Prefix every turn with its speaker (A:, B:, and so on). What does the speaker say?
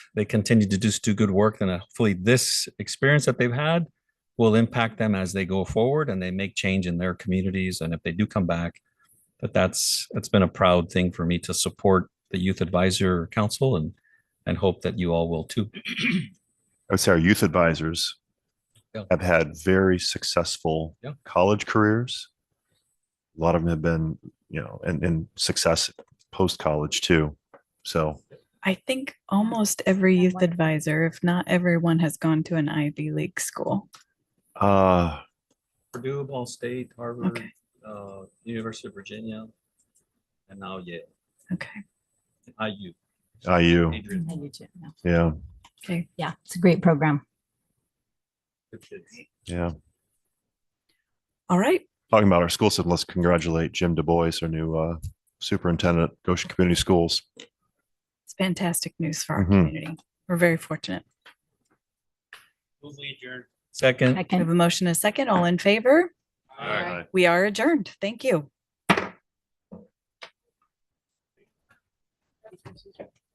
A: they continue to just do good work, then hopefully this experience that they've had will impact them as they go forward and they make change in their communities. And if they do come back, that that's, it's been a proud thing for me to support the Youth Advisor Council and, and hope that you all will too.
B: I would say our youth advisors
A: Yeah.
B: have had very successful
A: Yeah.
B: college careers. A lot of them have been, you know, and, and success post-college too. So
C: I think almost every youth advisor, if not everyone, has gone to an Ivy League school.
B: uh,
A: Purdue, Ball State, Harvard,
C: Okay.
A: uh, University of Virginia, and now Yale,
C: Okay.
A: IU.
B: IU,
A: Adrian,
D: I do too. yeah.
B: yeah,
C: Okay.
D: Yeah, it's a great program.
A: good kids.
B: yeah.
C: All right.
B: Talking about our school system, let's congratulate Jim Du Bois, our new uh, superintendent, at Goshen Community Schools.
C: It's fantastic news for our
B: Mhm.
C: community. We're very fortunate.
A: Second.
D: I
C: We have
D: can,
C: a motion, and a second. All in favor?
D: Aye.
C: We are adjourned. Thank you.